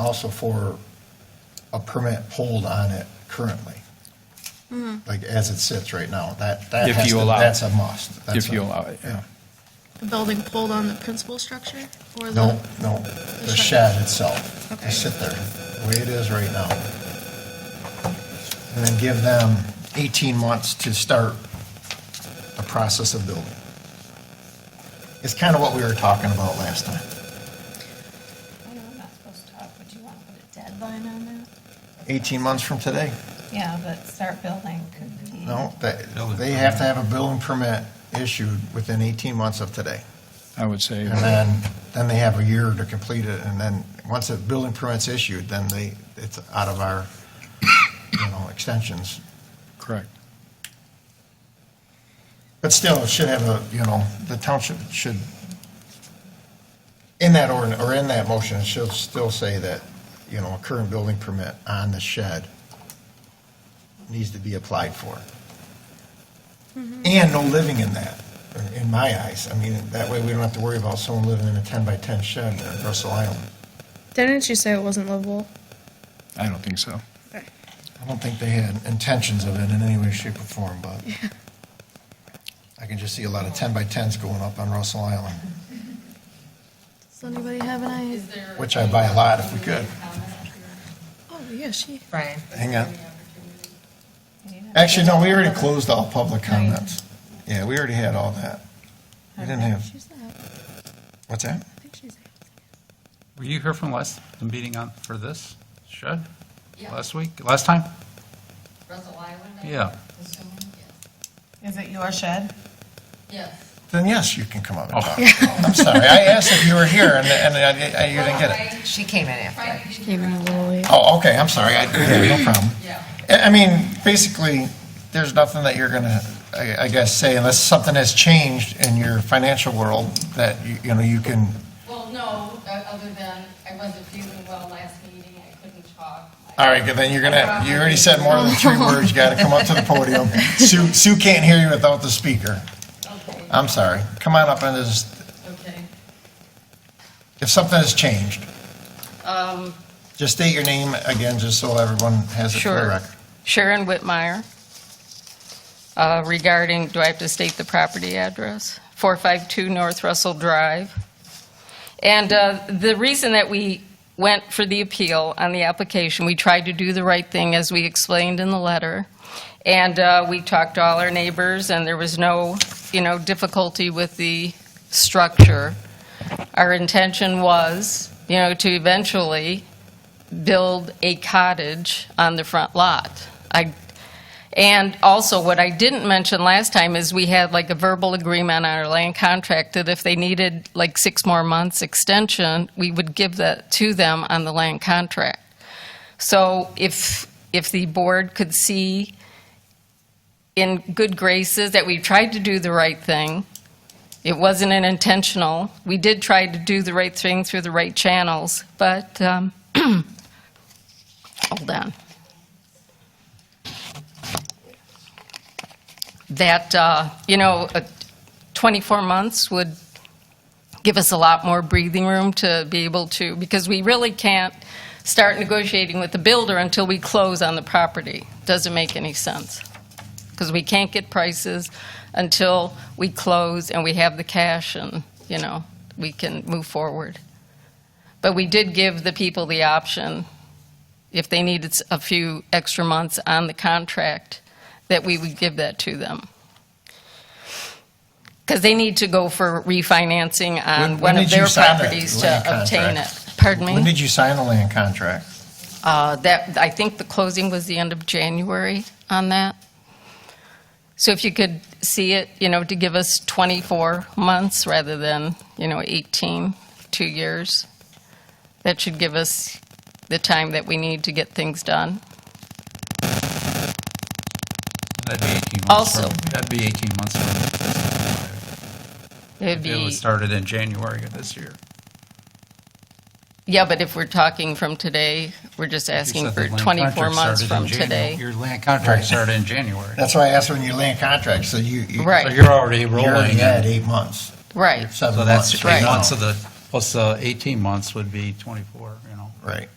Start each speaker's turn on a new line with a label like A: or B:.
A: also for a permit pulled on it currently. Like as it sits right now, that, that
B: If
A: has
B: you
A: to-
B: allow it.
A: that's a must. That's
B: If you
A: a-
B: allow it, yeah.
C: The building pulled on the principal structure or the?
A: No, no, the
C: shed.
A: shed itself,
C: Okay.
A: just sit there, the way it is right now. And then give them 18 months to start the process of building. It's kind of what we were talking about last time.
D: I know I'm not supposed to talk, but you want to put a deadline on that?
A: 18 months from today,
D: Yeah, but start building could be.
A: no, that- they have to have a building permit issued within 18 months of today.
B: I would say.
A: And then, then they have a year to complete it, and then, once the building permit's issued, then they, it's out of our, you know, extensions.
B: Correct.
A: But still, it should have a, you know, the township should, in that ordinance, or in that motion, it should still say that, you know, a current building permit on the shed needs to be applied for. And no living in that, in my eyes. I mean, that way we don't have to worry about someone living in a ten by ten shed in Russell Island.
E: Didn't you say it wasn't livable?
B: I don't think so.
E: Okay.
A: I don't think they had intentions of it in any way, shape, or form, but I can just see a lot of ten by tens going up on Russell Island,
C: Does anybody have an idea?
A: which I'd buy a lot if we could.
E: Oh yeah, she.
D: Brian.
A: Hang on. Actually, no, we already closed all public comments. Yeah, we already had all that. We didn't have,
E: She's not.
A: what's that?
E: I think she's.
F: Were you here from last, the meeting on, for this shed? Last week, last time?
G: Russell Island? I
F: Yeah.
G: assume, yes.
D: Is it your shed?
G: Yes.
A: Then yes, you can come up and talk. I'm sorry, I asked if you were here and, and I- I- you didn't get it.
D: She came in after.
G: Tried to give you
E: Came in a little late.
A: Oh, okay, I'm sorry, I, yeah, no problem.
G: Yeah.
A: I I mean, basically, there's nothing that you're going to, I I guess, say unless something has changed in your financial world that, you you know, you can,
G: Well, no, uh, other than I wasn't feeling well last meeting, I couldn't talk.
A: all right, then you're going to, you already said more than three words, you got to come up to the podium. Sue, Sue can't hear you without the speaker.
G: Okay,
A: I'm sorry. Come on up and just,
G: okay.
A: if something has changed,
G: Um,
A: just state your name again, just so everyone has it for the
G: Sure.
A: record.
G: Sharon Whitmire, uh, regarding, do I have to state the property address? 452 North Russell Drive. And uh, the reason that we went for the appeal on the application, we tried to do the right thing, as we explained in the letter, and uh, we talked to all our neighbors, and there was no, you know, difficulty with the structure. Our intention was, you know, to eventually build a cottage on the front lot. I, and also, what I didn't mention last time is we had like a verbal agreement on our land contract that if they needed like six more months extension, we would give that to them on the land contract. So if, if the board could see in good graces that we tried to do the right thing, it wasn't an intentional. We did try to do the right thing through the right channels, but, um, hold on. That, uh, you know, uh, 24 months would give us a lot more breathing room to be able to, because we really can't start negotiating with the builder until we close on the property. Doesn't make any sense. Because we can't get prices until we close and we have the cash and, you know, we can move forward. But we did give the people the option, if they needed s- a few extra months on the contract, that we would give that to them. Because they need to go for refinancing
A: When-
G: on
A: when
G: one of
A: did you
G: their
A: sign that
G: properties
A: land
G: to obtain it.
A: contract?
G: Pardon me?
A: When did you sign the land contract?
G: Uh, That, I think the closing was the end of January on that. So if you could see it, you know, to give us 24 months rather than, you know, 18, two years, that should give us the time that we need to get things done.
F: That'd be 18 months.
G: Also-
F: from- That'd be 18 months from.
G: It'd
F: It
G: be,
F: was started in January of this year.
G: yeah, but if we're talking from today, we're just
F: You
G: asking
F: said
G: for
F: the land
G: 24
F: contract
G: months
F: started in
G: from
F: Janu-
G: today.
F: Your land
A: Right.
F: contract started in January.
A: That's why I asked when you land contract, so you. you-
G: Right.
F: So you're already
A: You're
F: rolling.
A: already at eight months.
G: Right,
A: Seven
F: So that's
A: months
F: eight
A: now.
F: months of the, plus uh, 18 months would be 24, you know.
A: Right.